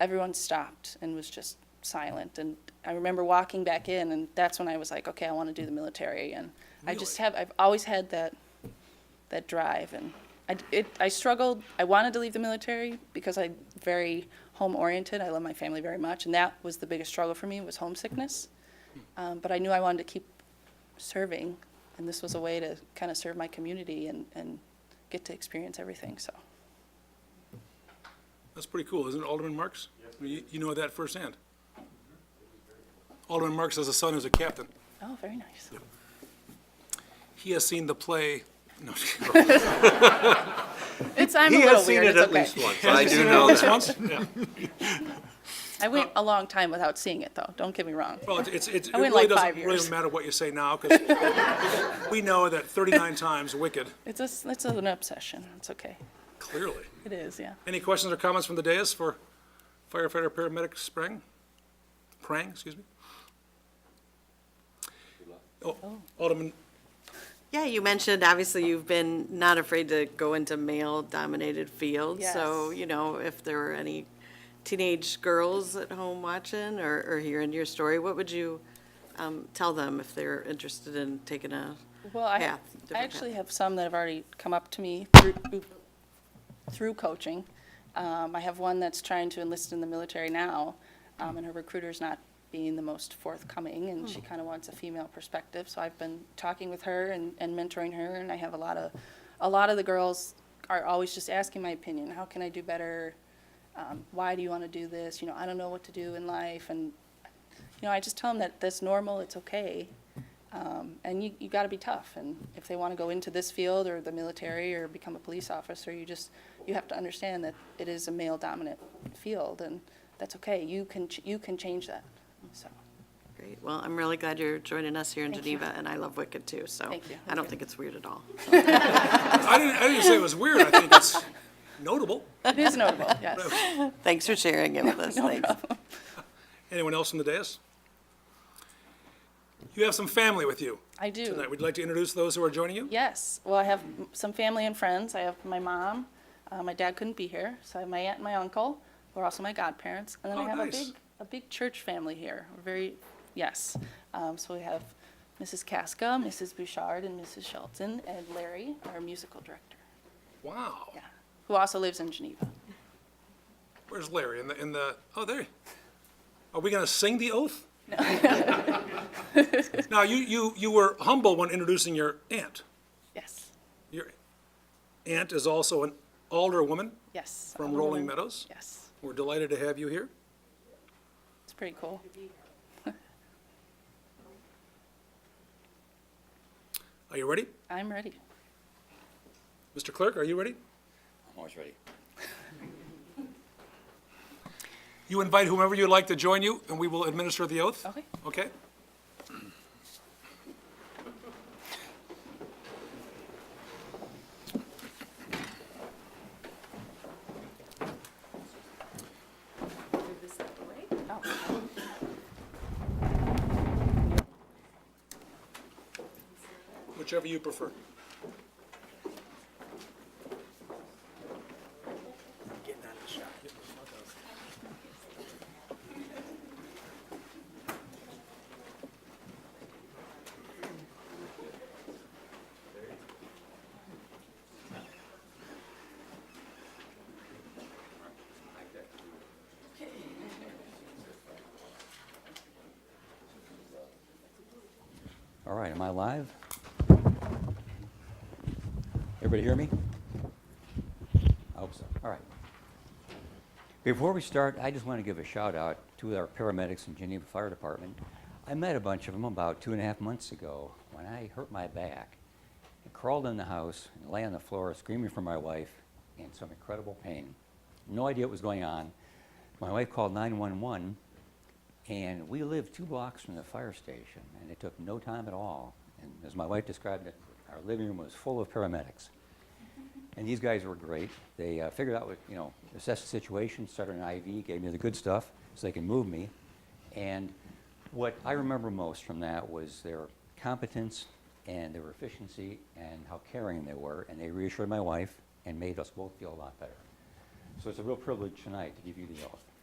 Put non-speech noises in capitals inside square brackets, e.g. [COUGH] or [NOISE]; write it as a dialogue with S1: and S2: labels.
S1: everyone stopped and was just silent. And I remember walking back in, and that's when I was like, okay, I want to do the military again. I just have, I've always had that, that drive, and I, d- it, I struggled. I wanted to leave the military because I'm very home oriented. I love my family very much, and that was the biggest struggle for me was homesickness. Um, but I knew I wanted to keep serving, and this was a way to kind of serve my community and, and get to experience everything. So.
S2: That's pretty cool, isn't it, Alderman Marks? You, you know that firsthand. Alderman Marks has a son who's a captain.
S1: Oh, very nice.
S2: He has seen the play, no, [LAUGHS]
S1: It's, I'm
S3: He
S1: a little
S3: has seen it
S1: weird. It's
S3: at
S1: okay.
S3: least
S4: [LAUGHS]
S3: once, I do know
S2: this
S3: that.
S1: [LAUGHS]
S2: once? Yeah.
S1: I went a long time without seeing it, though. Don't get me wrong.
S2: Well, it's, it's, it
S1: I went
S2: really
S1: like five
S2: doesn't, really
S1: years.
S2: doesn't matter what you say now, because [LAUGHS] we know that thirty-nine times wicked,
S1: It's just, it's an obsession. It's okay.
S2: clearly.
S1: It is, yeah.
S2: Any questions or comments from the dais for firefighter paramedic Sprang? Prang, excuse me? Oh, Alderman,
S5: Yeah, you mentioned, obviously, you've been not afraid to go into male-dominated fields. So,
S1: Yes.
S5: you know, if there were any teenage girls at home watching or, or hearing your story, what would you um, tell them if they're interested in taking a
S1: Well, I,
S5: path?
S1: I
S5: different
S1: actually
S5: path?
S1: have some that have already come up to me through, through coaching. Um, I have one that's trying to enlist in the military now, um, and her recruiter's not being the most forthcoming, and
S5: Hmm.
S1: she kind of wants a female perspective. So I've been talking with her and, and mentoring her, and I have a lot of, a lot of the girls are always just asking my opinion. How can I do better? Um, why do you want to do this? You know, I don't know what to do in life, and you know, I just tell them that that's normal, it's okay. Um, and you, you gotta be tough. And if they wanna go into this field or the military or become a police officer, you just, you have to understand that it is a male dominant field and that's okay. You can, ch- you can change that. So,
S5: Great, well, I'm really glad you're joining us here in
S1: Thank you.
S5: Geneva, and I love Wicked, too, so.
S1: Thank you.
S5: I don't think it's weird at all.
S2: I didn't, I didn't say it was weird, I think it's notable.
S1: it is notable, yes.
S5: Thanks for sharing it
S1: [LAUGHS]
S5: with us, thanks.
S2: Anyone else from the dais? You have some family with you
S1: I do.
S2: tonight. Would you like to introduce those who are joining you?
S1: Yes. Well, I have m- some family and friends. I have my mom. Uh, my dad couldn't be here, so I have my aunt and my uncle, who are also my godparents. And then
S2: Oh,
S1: I have
S2: nice.
S1: a big, a big church family here. We're very, yes. Um, so we have Mrs. Casca, Mrs. Bouchard, and Mrs. Shelton, and Larry, our musical director,
S2: Wow.
S1: yeah, who also lives in Geneva.
S2: Where's Larry? In the, in the, oh, there. Are we going to sing the oath? No. [LAUGHS] Now, you, you, you were humble when introducing your aunt.
S1: Yes.
S2: Your aunt is also an alderwoman
S1: Yes.
S2: from
S1: I'm a
S2: Rolling
S1: woman.
S2: Meadows.
S1: Yes.
S2: We're delighted to have you here.
S1: It's pretty cool.
S2: Are you ready?
S1: I'm ready.
S2: Mr. Clerk, are you ready?
S4: I'm always ready.
S2: You invite whomever you'd like to join you, and we will administer the oath.
S1: Okay.
S2: Okay? Whichever you prefer.
S4: All right, am I live? Everybody hear me? I hope so. All right. Before we start, I just want to give a shout out to our paramedics in Geneva Fire Department. I met a bunch of them about two and a half months ago when I hurt my back. I crawled in the house and lay on the floor screaming for my wife in some incredible pain. No idea what was going on. My wife called 911 and we lived two blocks from the fire station, and it took no time at all. And as my wife described it, our living room was full of paramedics. And these guys were great. They uh, figured out what, you know, assessed the situation, started an IV, gave me the good stuff so they could move me. And what I remember most from that was their competence and their efficiency and how caring they were. And they reassured my wife and made us both feel a lot better. So it's a real privilege tonight to give you the oath.